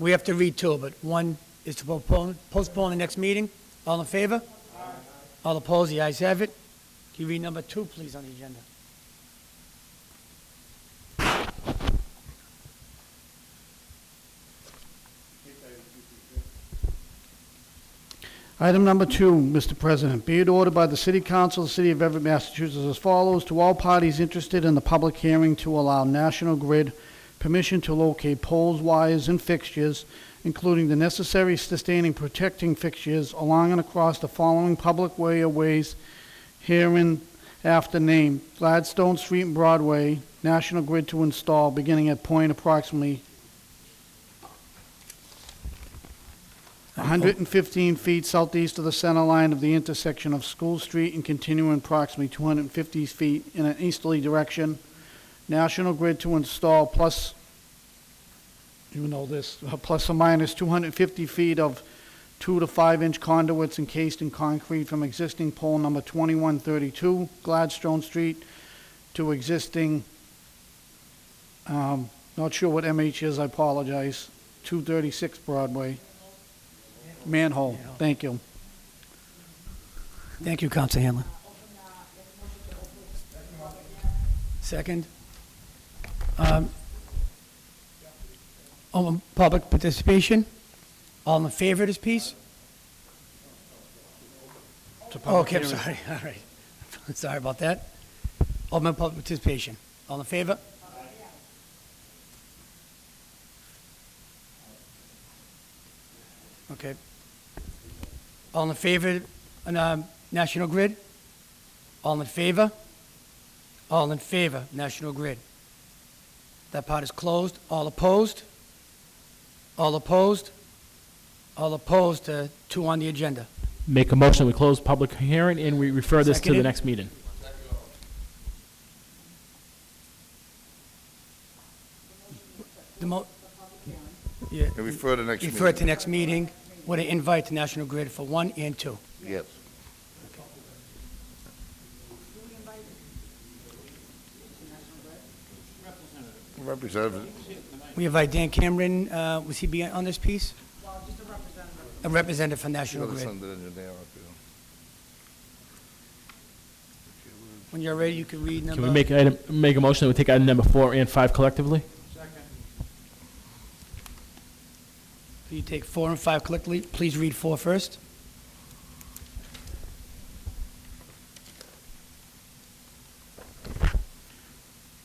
We have to read two, but one is to postpone, postpone the next meeting. All in favor? All opposed? The ayes have it. Can you read number two, please, on the agenda? Item number two, Mr. President, be it ordered by the City Council of the City of Everett, Massachusetts as follows, to all parties interested in the public hearing to allow National Grid permission to locate poles, wires, and fixtures, including the necessary sustaining protecting fixtures along and across the following public way or ways herein after named, Gladstone Street and Broadway, National Grid to install, beginning at point approximately 115 feet southeast of the center line of the intersection of School Street and continuing approximately 250 feet in an easterly direction. National Grid to install plus, you know this, uh, plus or minus 250 feet of two to five-inch conduits encased in concrete from existing pole number 2132 Gladstone Street to existing, um, not sure what MH is, I apologize, 236 Broadway. Manhole, thank you. Thank you, Council Hanlon. Second. Um, Open public participation. All in favor of this piece? It's a public Okay, I'm hearing. sorry, all right. Sorry about that. Open public participation. All in favor? Okay. All in favor, on, um, National Grid? All in favor? All in favor, National Grid. That part is closed. All opposed? All opposed? All opposed to two on the agenda. Make a motion that we close public hearing and we refer this to the Seconded. next meeting. The mo, yeah, And refer to next meeting. refer it to next meeting, with an invite to National Grid for one and two. Yes. Representative, We invite Dan Cameron, uh, was he be on this piece? just a representative. A representative from you're National the Grid. son of the engineer up here. When you're ready, you can read number. Can we make, item- make a motion that we take item number four and five collectively? Can you take four and five collectively? Please read four first.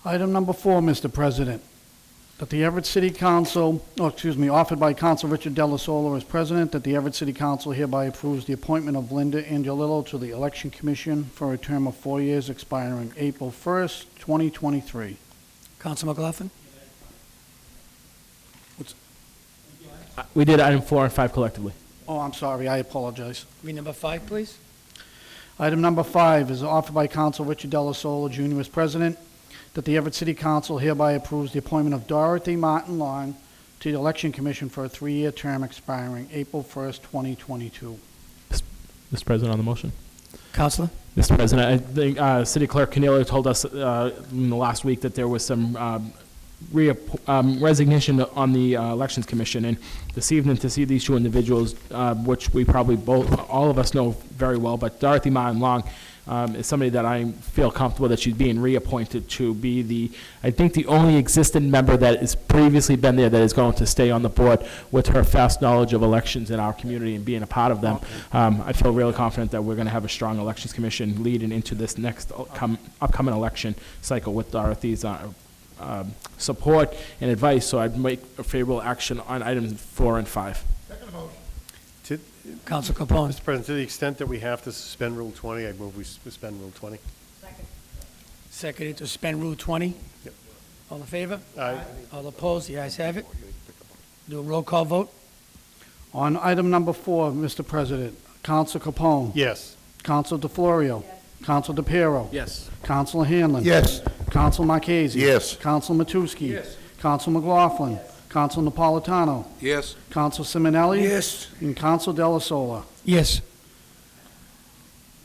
Item number four, Mr. President, that the Everett City Council, oh, excuse me, offered by Council Richard Delasola as president, that the Everett City Council hereby approves the appointment of Linda Angelillo to the Election Commission for a term of four years expiring April 1st, 2023. Council McLaughlin? Uh, We did item four and five collectively. Oh, I'm sorry, I apologize. read number five, please. Item number five is offered by Council Richard Delasola Jr. as president, that the Everett City Council hereby approves the appointment of Dorothy Martin Long to the Election Commission for a three-year term expiring April 1st, 2022. Mr. President, on the motion. Councilor? Mr. President, I think uh, City Clerk Canelo told us uh, in the last week that there was some um, reapp- um, resignation on the uh, Elections Commission, and this evening to see these two individuals, uh, which we probably both, all of us know very well, but Dorothy Martin Long um, is somebody that I feel comfortable that she's being reappointed to be the, I think, the only existing member that has previously been there that is going to stay on the board with her vast knowledge of elections in our community and being a part of them. Um, I feel really confident that we're going to have a strong elections commission leading into this next upcom- upcoming election cycle with Dorothy's uh, um, support and advice, so I'd make a favorable action on items four and five. To- Council Capone? Mr. President, to the extent that we have to suspend Rule 20, I move we suspend Rule 20. Seconded to suspend Rule 20. Yep. All in favor? Aye. All opposed? The ayes have it. Do a roll call vote. On item number four, Mr. President, Council Capone. Yes. Council DeFlorio. Council DePiero. Yes. Council Hanlon. Yes. Council Marchese. Yes. Council Matusky. Yes. Council McLaughlin. Council Napolitano. Yes. Council Simonelli. Yes. And Council Delasola. Yes.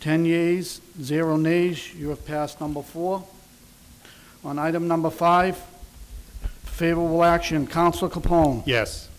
10 yeas, 0 nays, you have passed number four. On item number five, favorable action, Counsel Capone. Yes.